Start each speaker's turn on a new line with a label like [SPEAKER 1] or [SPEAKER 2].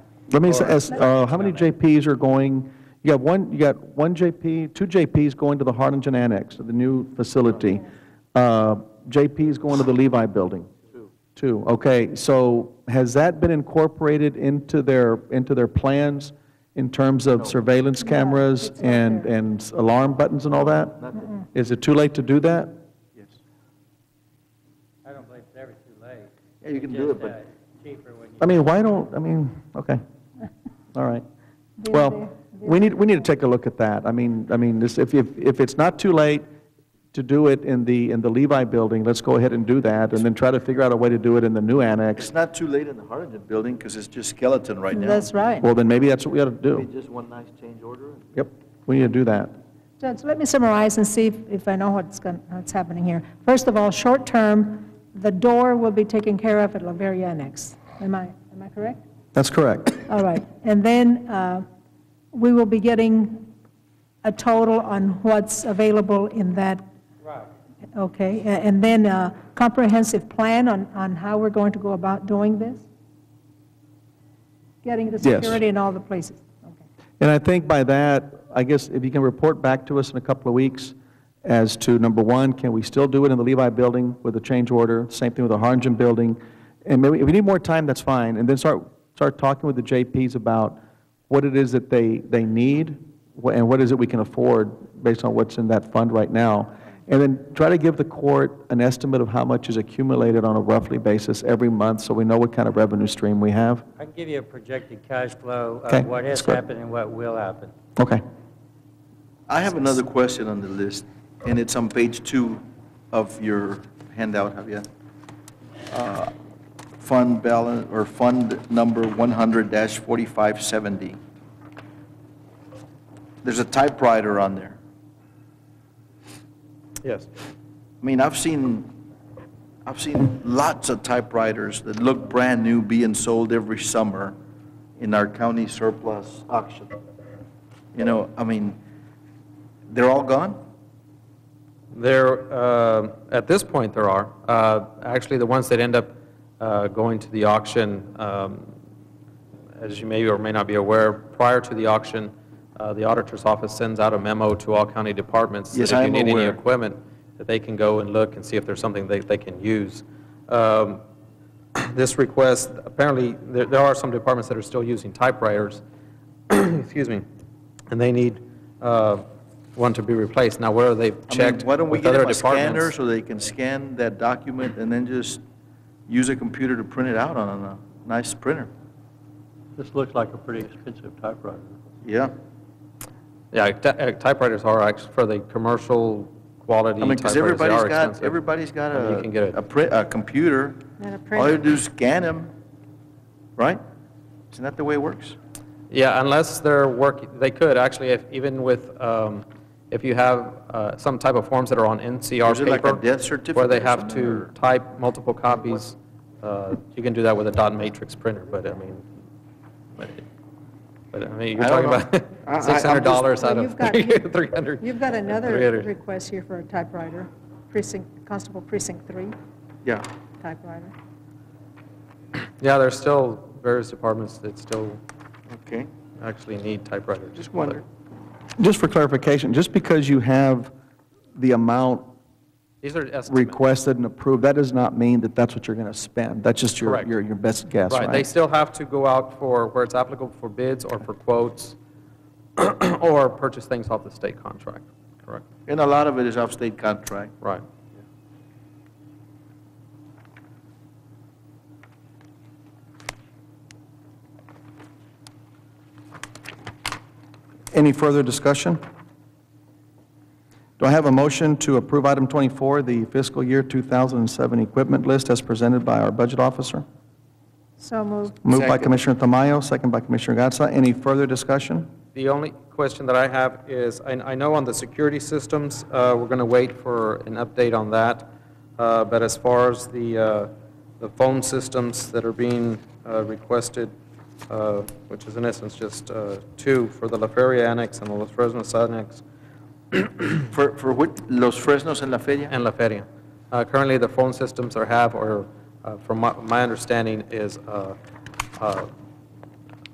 [SPEAKER 1] Let me s- ask, uh, how many JPs are going, you got one, you got one JP, two JPs going to the Harlingen Annex, to the new facility. Uh, JP is going to the Levi Building? Two. Two, okay. So has that been incorporated into their, into their plans in terms of surveillance cameras and, and s- alarm buttons and all that? Nothing. Is it too late to do that?
[SPEAKER 2] I don't believe it's ever too late.
[SPEAKER 3] Yeah, you can
[SPEAKER 2] It's
[SPEAKER 3] do it,
[SPEAKER 2] just,
[SPEAKER 3] but-
[SPEAKER 2] uh, Cheaper when you.
[SPEAKER 1] I mean, why don't, I mean, okay, all right.
[SPEAKER 4] They're there.
[SPEAKER 1] Well, we need, we need to take a look at that. I mean, I mean, this- if, if, if it's not too late to do it in the, in the Levi building, let's go ahead and do that, and then try to figure out a way to do it in the new
[SPEAKER 3] It's
[SPEAKER 1] annex.
[SPEAKER 3] not too late in the Harlingen building, because it's just skeleton right now.
[SPEAKER 5] That's right.
[SPEAKER 1] Well, then maybe that's what we ought to do.
[SPEAKER 3] Maybe Just one nice change order. and-
[SPEAKER 1] Yep, we need to do that.
[SPEAKER 4] Judge, let me summarize and see if- if I know what's going, what's happening here. First of all, short-term, the door will be taken care of at La Verre Annex. Am I, am I correct?
[SPEAKER 1] That's correct.
[SPEAKER 4] All right. And then uh, we will be getting a total on what's available in that,
[SPEAKER 2] Right.
[SPEAKER 4] okay? A- And then a comprehensive plan on, on how we're going to go about doing this? Getting the
[SPEAKER 1] Yes.
[SPEAKER 4] security in all the places? Okay.
[SPEAKER 1] And I think by that, I guess if you can report back to us in a couple of weeks as to, number one, can we still do it in the Levi building with a change order? Same thing with the Harlingen building. And maybe, if we need more time, that's fine. And then start, start talking with the JPs about what it is that they, they need wh- and what is it we can afford based on what's in that fund right now. And then try to give the court an estimate of how much is accumulated on a roughly basis every month so we know what kind of revenue stream we have.
[SPEAKER 2] I can give you a projected cash flow
[SPEAKER 1] Okay,
[SPEAKER 2] of what has
[SPEAKER 1] that's good.
[SPEAKER 2] happened and what will happen.
[SPEAKER 1] Okay.
[SPEAKER 3] I have another question on the list, and it's on page two of your handout, Javier. Uh, Fund balance, or fund number 100-4570. There's a typewriter on there.
[SPEAKER 1] Yes.
[SPEAKER 3] I mean, I've seen, I've seen lots of typewriters that look brand-new being sold every summer in our county surplus auction. You know, I mean, they're all gone?
[SPEAKER 6] There, uh, at this point, there are. Uh, Actually, the ones that end up uh, going to the auction, um, as you may or may not be aware, prior to the auction, uh, the auditor's office sends out a memo to all county departments
[SPEAKER 3] Yes, I am
[SPEAKER 6] that if you need
[SPEAKER 3] aware.
[SPEAKER 6] any equipment, that they can go and look and see if there's something they they can use. Um, This request, apparently, there there are some departments that are still using typewriters, excuse me, and they need uh, one to be replaced. Now, whether they've
[SPEAKER 3] I mean,
[SPEAKER 6] checked
[SPEAKER 3] Why don't we
[SPEAKER 6] with
[SPEAKER 3] get
[SPEAKER 6] other
[SPEAKER 3] them a scanner
[SPEAKER 6] departments.
[SPEAKER 3] so they can scan that document and then just use a computer to print it out on a nice printer?
[SPEAKER 7] This looks like a pretty expensive typewriter.
[SPEAKER 3] Yeah.
[SPEAKER 6] Yeah, ty- uh, typewriters are actually for the commercial quality
[SPEAKER 3] I mean, because
[SPEAKER 6] typewriters. They
[SPEAKER 3] everybody's
[SPEAKER 6] are
[SPEAKER 3] got,
[SPEAKER 6] expensive.
[SPEAKER 3] everybody's got
[SPEAKER 6] I mean, You can get
[SPEAKER 3] a, a
[SPEAKER 6] it.
[SPEAKER 3] print, a computer.
[SPEAKER 5] And a
[SPEAKER 3] All
[SPEAKER 5] printer.
[SPEAKER 3] you do is scan them, right? Isn't that the way it works?
[SPEAKER 6] Yeah, unless they're work, they could, actually, if, even with, um, if you have uh, some type of forms that are on NCR
[SPEAKER 3] Is
[SPEAKER 6] paper.
[SPEAKER 3] it like a death
[SPEAKER 6] Where
[SPEAKER 3] certificate or
[SPEAKER 6] they have
[SPEAKER 3] something, or-
[SPEAKER 6] to type multiple copies, uh, you can do that with a dot matrix printer, but I mean, but, but I mean, you're
[SPEAKER 3] I
[SPEAKER 6] talking
[SPEAKER 3] don't know. I- I-
[SPEAKER 6] about
[SPEAKER 3] I'm
[SPEAKER 6] six hundred dollars
[SPEAKER 3] just-
[SPEAKER 6] out
[SPEAKER 5] Well,
[SPEAKER 6] of
[SPEAKER 5] you've got-
[SPEAKER 6] three hundred.
[SPEAKER 5] You've got another request here for a typewriter, precinct, Constable Precinct 3
[SPEAKER 3] Yeah.
[SPEAKER 5] typewriter.
[SPEAKER 6] Yeah, there's still various departments that still
[SPEAKER 3] Okay.
[SPEAKER 6] actually need typewriters.
[SPEAKER 3] Just wondered.
[SPEAKER 1] Just for clarification, just because you have the amount
[SPEAKER 6] These are estimates.
[SPEAKER 1] requested and approved, that does not mean that that's what you're going to spend. That's just your,
[SPEAKER 6] Correct.
[SPEAKER 1] your, your best guess,
[SPEAKER 6] Right, they
[SPEAKER 1] right?
[SPEAKER 6] still have to go out for, where it's applicable, for bids or for quotes, or purchase things off the state contract, correct?
[SPEAKER 3] And a lot of it is off-state contract.
[SPEAKER 6] Right.
[SPEAKER 1] Any further discussion? Do I have a motion to approve item 24, the fiscal year 2007 equipment list as presented by our budget officer?
[SPEAKER 5] So moved.
[SPEAKER 1] Moved by
[SPEAKER 3] Second.
[SPEAKER 1] Commissioner Tamayo, second by Commissioner Gatsa. Any further discussion?
[SPEAKER 6] The only question that I have is, I I know on the security systems, uh, we're going to wait for an update on that, Uh, but as far as the uh, the phone systems that are being uh, requested, uh, which is in essence just uh, two for the La Feria Annex and the Los Fresnos Annex,
[SPEAKER 3] For, for which, Los Fresnos en la Feria?
[SPEAKER 6] and La Feria. Uh, Currently, the phone systems are have, or uh, from my my understanding, is uh, uh,